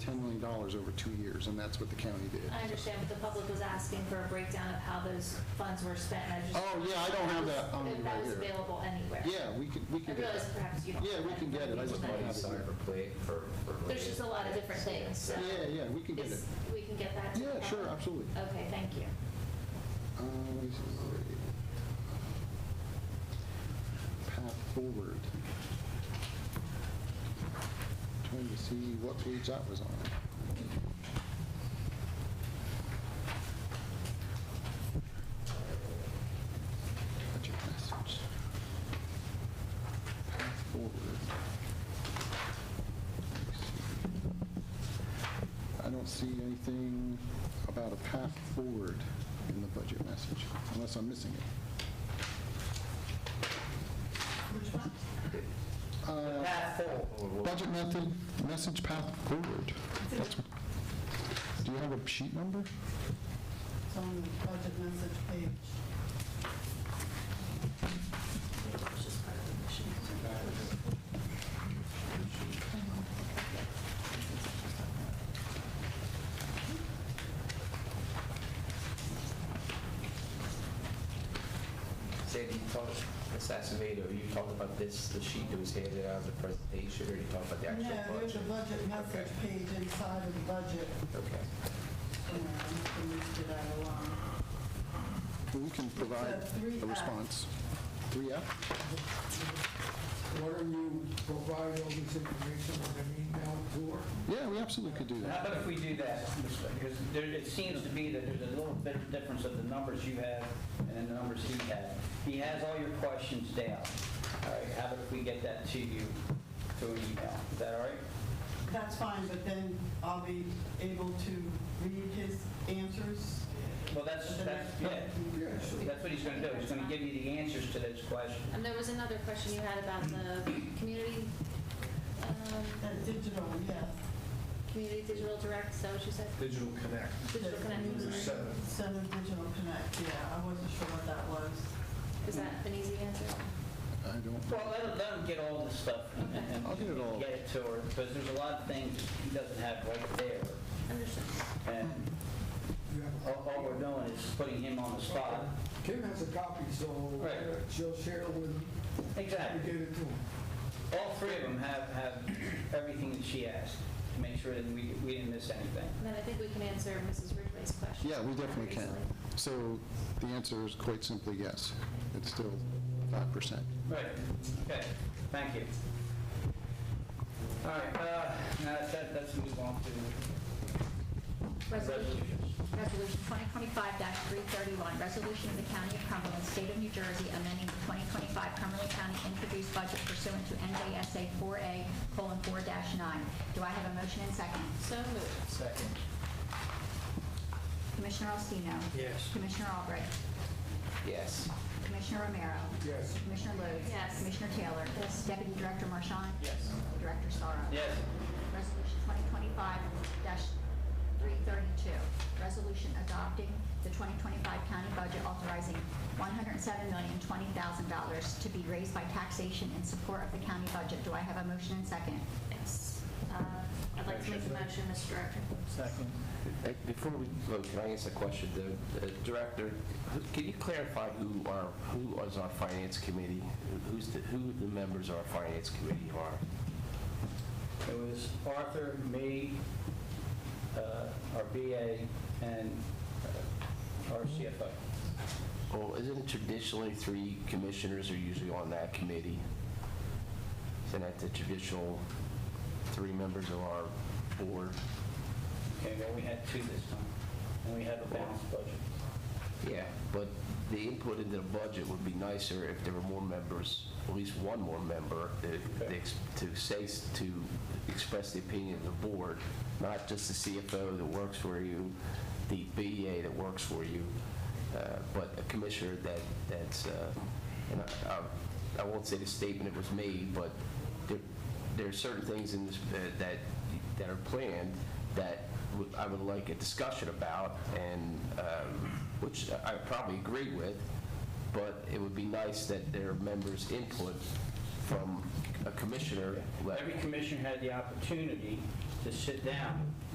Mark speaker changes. Speaker 1: dollars over two years, and that's what the county did.
Speaker 2: I understand, but the public was asking for a breakdown of how those funds were spent, and I just.
Speaker 1: Oh, yeah, I don't have that on me
Speaker 2: If that
Speaker 1: right
Speaker 2: was
Speaker 1: here.
Speaker 2: available anywhere.
Speaker 1: Yeah, we could, we
Speaker 2: I
Speaker 1: could get
Speaker 2: realize
Speaker 1: that.
Speaker 2: perhaps you don't.
Speaker 1: Yeah,
Speaker 2: have
Speaker 1: we
Speaker 2: that
Speaker 1: can get it. I just
Speaker 2: information.
Speaker 1: don't
Speaker 3: Money
Speaker 1: have it.
Speaker 3: somewhere for play, for, for.
Speaker 2: There's just a lot of different things, so.
Speaker 1: Yeah, yeah, we can get it.
Speaker 2: Is- We can get that to the
Speaker 1: Yeah, sure,
Speaker 2: public?
Speaker 1: absolutely.
Speaker 2: Okay, thank you.
Speaker 1: Uh, let me see. Path forward. Trying to see what page that was on. Budget message. Path forward. Let me see. I don't see anything about a path forward in the budget message, unless I'm missing it.
Speaker 3: Path forward.
Speaker 1: Uh, Budget method, message path forward. That's- Do you have a sheet number?
Speaker 4: It's on the budget message page.
Speaker 3: Sandy, you talked, Ms. Acevedo, you talked about this, the sheet that was handed out, the presentation, or you talked about the actual budget?
Speaker 4: No, there's a budget message
Speaker 3: Okay.
Speaker 4: page inside of the budget.
Speaker 3: Okay.
Speaker 4: and we moved it out along.
Speaker 1: We can provide
Speaker 4: three
Speaker 1: a
Speaker 4: F.
Speaker 1: response. 3F?
Speaker 5: Why don't you provide all this information on an email tour?
Speaker 1: Yeah, we absolutely could do
Speaker 6: How
Speaker 1: that.
Speaker 6: about if we do that, Mr. because there, it seems to be that there's a little bit of difference of the numbers you have and then the numbers he had. He has all your questions down. All right, how about if we get that to you through an email? Is that all right?
Speaker 4: That's fine, but then I'll be able to read his answers.
Speaker 6: Well, that's, that's, yeah, that's what he's gonna do. He's gonna give you the answers to those questions.
Speaker 2: And there was another question you had about the community, um,
Speaker 4: That digital, yeah.
Speaker 2: community digital direct, is that what you said?
Speaker 5: Digital Connect.
Speaker 2: Digital connection, sorry.
Speaker 4: Center Digital Connect, yeah, I wasn't sure what that was.
Speaker 2: is that an easy answer?
Speaker 1: I don't,
Speaker 6: Well, let him, let him get all the stuff and- and
Speaker 1: I'll get it all.
Speaker 6: get it to her, because there's a lot of things he doesn't have right there.
Speaker 2: Understood.
Speaker 6: And
Speaker 5: You have a
Speaker 6: all, all we're doing is putting him on the spot.
Speaker 5: Kim has a copy, so
Speaker 6: Right.
Speaker 5: she'll share with him.
Speaker 6: Exactly.
Speaker 5: You get it to him.
Speaker 6: All three of them have, have everything that she asked, to make sure that we, we didn't miss anything.
Speaker 2: And then I think we can answer Mrs. Ridgway's question.
Speaker 1: yeah, we definitely can.
Speaker 2: Recently.
Speaker 1: So the answer is quite simply yes. It's still 5%.
Speaker 6: Right, okay, thank you. All right, uh, now that- that, let's move on to
Speaker 7: Resolution
Speaker 6: resolutions.
Speaker 7: Resolution 2025-331, resolution of the County of Cumberland, State of New Jersey, amending the 2025 Cumberland County introduced budget pursuant to NJSA 4A: 4-9. Do I have a motion and second?
Speaker 2: So moved.
Speaker 6: Second.
Speaker 7: Commissioner Alstino.
Speaker 6: Yes.
Speaker 7: Commissioner Albrecht.
Speaker 3: Yes.
Speaker 7: Commissioner Romero.
Speaker 5: Yes.
Speaker 7: Commissioner Lodes.
Speaker 2: Yes.
Speaker 7: Commissioner Taylor. Yes. Deputy Director Marchand.
Speaker 6: Yes.
Speaker 7: Director Sorrow.
Speaker 6: Yes,
Speaker 7: Resolution 2025-332, resolution adopting the 2025 county budget authorizing $107,020,000 to be raised by taxation in support of the county budget. Do I have a motion and second?
Speaker 2: Yes. Uh, I'd like to make the motion, Mr. Director.
Speaker 3: Uh, Before we, vote, can I ask a question? The the Director, who- can you clarify who are, who is our Finance Committee? Who's the, who the members of our Finance Committee are?
Speaker 6: it was Arthur, me, uh, our BA, and uh, our CFO.
Speaker 3: Well, isn't it traditionally three commissioners are usually on that committee? Isn't that the traditional three members of our board?
Speaker 6: Okay, well, we had two this time, and we have a balanced budget.
Speaker 3: Yeah, but the input into the budget would be nicer if there were more members, at least one more member, that- that ex- to say, s- to express the opinion of the board, not just the CFO that works for you, the BA that works for you, uh, but a commissioner that, that's, uh, and I- I- I won't say the statement that was made, but there- there are certain things in this, that- that, that are planned that would- I would like a discussion about, and, um, which I probably agree with, but it would be nice that there are members' input from a commissioner. let-
Speaker 6: Every commissioner had the opportunity to sit down